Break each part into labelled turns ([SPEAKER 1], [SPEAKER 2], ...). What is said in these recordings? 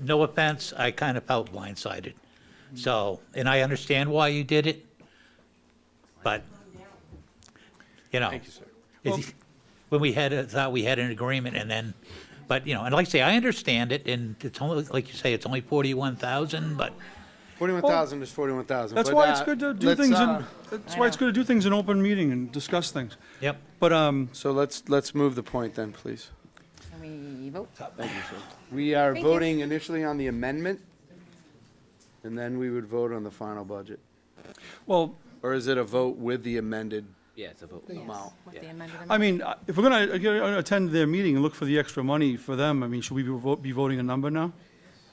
[SPEAKER 1] no offense, I kind of felt blindsided. So, and I understand why you did it, but, you know.
[SPEAKER 2] Thank you, sir.
[SPEAKER 1] it's- When we had, a- thought we had an agreement and then, but, you know, and like I say, I understand it and it's only, like you say, it's only 41,000, but,
[SPEAKER 2] Forty-one thousand is forty-one thousand.
[SPEAKER 3] That's why it's good to do things
[SPEAKER 2] uh,
[SPEAKER 3] in, that's why it's good to do things in open meeting and discuss things.
[SPEAKER 1] yep.
[SPEAKER 3] But, um,
[SPEAKER 2] So let's, let's move the point then, please.
[SPEAKER 4] Can we vote?
[SPEAKER 2] Thank you, sir. We are
[SPEAKER 4] Thank you.
[SPEAKER 2] voting initially on the amendment, and then we would vote on the final budget.
[SPEAKER 3] well,
[SPEAKER 2] Or is it a vote with the amended?
[SPEAKER 5] Yeah, it's a vote.
[SPEAKER 2] Yes. Wow.
[SPEAKER 4] With the amended
[SPEAKER 3] I
[SPEAKER 4] amendment?
[SPEAKER 3] mean, uh, if we're gonna, uh, get- uh, attend their meeting and look for the extra money for them, I mean, should we be vo- be voting a number now?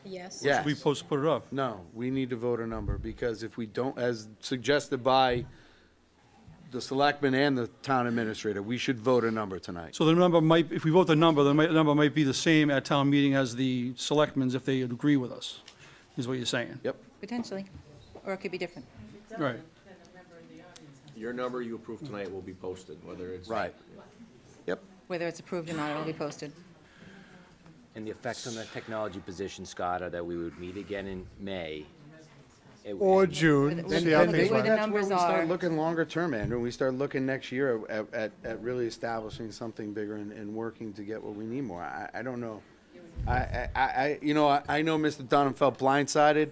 [SPEAKER 4] Yes.
[SPEAKER 2] Yeah.
[SPEAKER 3] Should we post, put it up?
[SPEAKER 2] No, we need to vote a number, because if we don't, as suggested by the selectmen and the town administrator, we should vote a number tonight.
[SPEAKER 3] So the number might, if we vote the number, the mi- number might be the same at town meeting as the selectmen's if they agree with us, is what you're saying.
[SPEAKER 2] Yep,
[SPEAKER 4] Potentially, or it could be different.
[SPEAKER 3] Right.
[SPEAKER 6] Your number you approve tonight will be posted, whether it's.
[SPEAKER 2] right. Yep.
[SPEAKER 4] Whether it's approved or not, it'll be posted.
[SPEAKER 5] And the effects on the technology position, Scott, are that we would meet again in May. It-
[SPEAKER 7] Or
[SPEAKER 5] and-
[SPEAKER 7] June,
[SPEAKER 4] Then-
[SPEAKER 7] see how
[SPEAKER 4] then
[SPEAKER 7] things
[SPEAKER 4] they-
[SPEAKER 7] run.
[SPEAKER 4] the numbers
[SPEAKER 2] That's where we
[SPEAKER 4] are.
[SPEAKER 2] start looking longer term, Andrew. We start looking next year at, at, at really establishing something bigger and, and working to get what we need more. I, I don't know. I, I, I- I, you know, I, I know Mr. Dunham felt blindsided.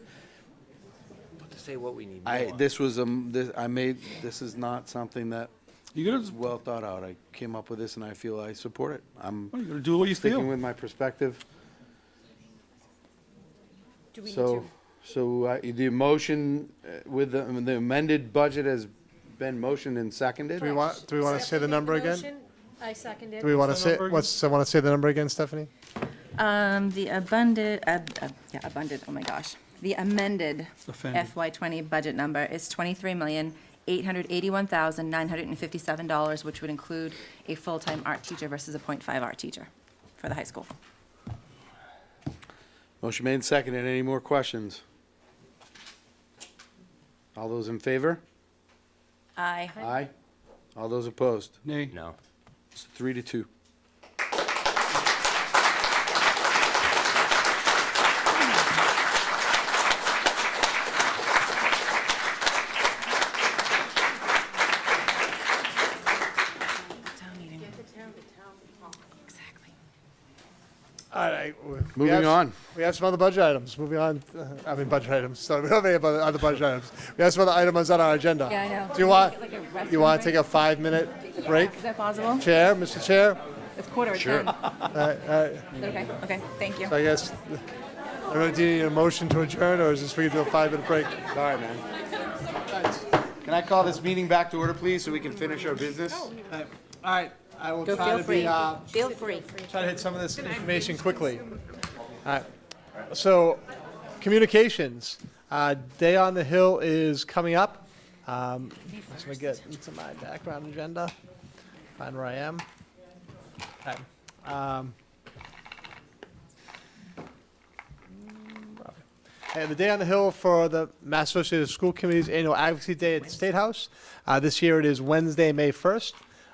[SPEAKER 5] To say what we need.
[SPEAKER 2] I,
[SPEAKER 5] more.
[SPEAKER 2] this was, um, this, I made, this is not something that
[SPEAKER 3] You gotta,
[SPEAKER 2] was well thought out. I came up with this and I feel I support it. I'm
[SPEAKER 3] well, you gotta do what you
[SPEAKER 2] sticking
[SPEAKER 3] feel.
[SPEAKER 2] with my perspective.
[SPEAKER 4] Do we need
[SPEAKER 2] So,
[SPEAKER 4] to,
[SPEAKER 2] so uh, the motion uh, with the the amended budget has been motioned and seconded?
[SPEAKER 7] Do we want, do we want to say the
[SPEAKER 8] Seconded
[SPEAKER 7] number again?
[SPEAKER 8] motion. I seconded.
[SPEAKER 7] Do we want to
[SPEAKER 3] What's the
[SPEAKER 7] say,
[SPEAKER 3] number again?
[SPEAKER 7] what's, I want to say the number again, Stephanie?
[SPEAKER 4] um, the abundant, ab- ab- yeah, abundant, oh my gosh. The amended
[SPEAKER 3] Offended.
[SPEAKER 4] FY twenty budget number is twenty-three million, eight hundred eighty-one thousand, nine hundred and fifty-seven dollars, which would include a full-time art teacher versus a point five art teacher for the high school.
[SPEAKER 2] Motion made and seconded. Any more questions? All those in favor?
[SPEAKER 4] Aye.
[SPEAKER 2] Aye. All those opposed?
[SPEAKER 3] Nay.
[SPEAKER 5] No.
[SPEAKER 2] It's three to two.
[SPEAKER 4] Town meeting. Exactly.
[SPEAKER 7] All right. we- we
[SPEAKER 2] Moving
[SPEAKER 7] have-
[SPEAKER 2] on.
[SPEAKER 7] We have some other budget items. Moving on, uh, I mean, budget items. Sorry, we don't have any other other budget items. We have some other items on our agenda.
[SPEAKER 4] Yeah, I know.
[SPEAKER 7] Do you want,
[SPEAKER 4] Like a restroom
[SPEAKER 7] you want to
[SPEAKER 4] break?
[SPEAKER 7] take a five-minute break?
[SPEAKER 4] Is that possible?
[SPEAKER 7] Chair, Mr. Chair?
[SPEAKER 4] It's quarter to ten. Okay, okay, thank you.
[SPEAKER 7] So I guess, I really do need a motion to adjourn, or is this for you to do a five-minute break?
[SPEAKER 2] Sorry, man. Can I call this meeting back to order, please, so we can finish our
[SPEAKER 4] Oh,
[SPEAKER 2] business?
[SPEAKER 7] All right, I will
[SPEAKER 4] Go feel free,
[SPEAKER 2] uh,
[SPEAKER 7] uh,
[SPEAKER 4] feel free.
[SPEAKER 7] try to hit some of this information quickly. All right. So, communications. Uh, Day on the Hill is coming up. Um, let me get into my background agenda. Find where I am. Okay. Um, And the Day on the Hill for the Mass Association of School Committees Annual Advocacy Day at the State House. Uh, this year it is Wednesday, May 1st.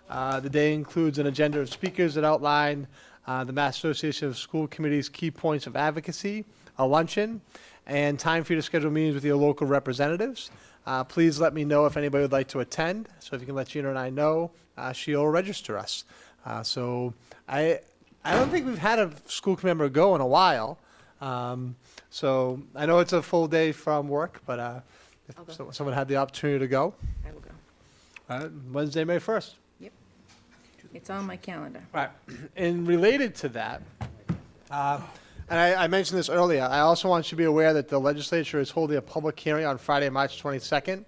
[SPEAKER 7] Uh, the day includes an agenda of speakers that outline uh, the Mass Association of School Committees' key points of advocacy, a luncheon, and time for you to schedule meetings with your local representatives. Uh, please let me know if anybody would like to attend. So if you can let Gina and I know, uh, she'll register us. Uh, so I, I don't think we've had a school committee member go in a while. Um, so I know it's a full day from work, but uh,
[SPEAKER 4] I'll go.
[SPEAKER 7] if so- someone had the opportunity to go,
[SPEAKER 4] I will go.
[SPEAKER 7] uh, Wednesday, May 1st.
[SPEAKER 4] It's on my calendar.
[SPEAKER 7] Right. And related to that, uh, and I, I mentioned this earlier, I also want you to be aware that the legislature is holding a public hearing on Friday, March 22nd,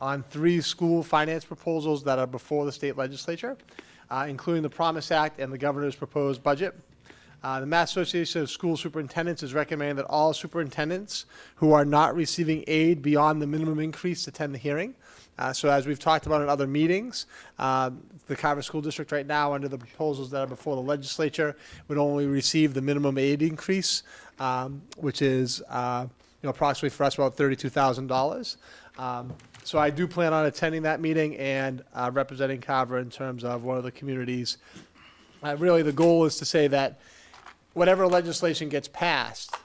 [SPEAKER 7] on three school finance proposals that are before the state legislature, uh, including the Promise Act and the governor's proposed budget. Uh, the Mass Association of School Superintendents is recommending that all superintendents who are not receiving aid beyond the minimum increase attend the hearing. Uh, so as we've talked about in other meetings, uh, the Carver School District right now, under the proposals that are before the legislature, would only receive the minimum aid increase, um, which is, uh, you know, approximately for us about thirty-two thousand dollars. Um, so I do plan on attending that meeting and uh, representing Carver in terms of one of the communities uh, really, the goal is to say that whatever legislation gets passed,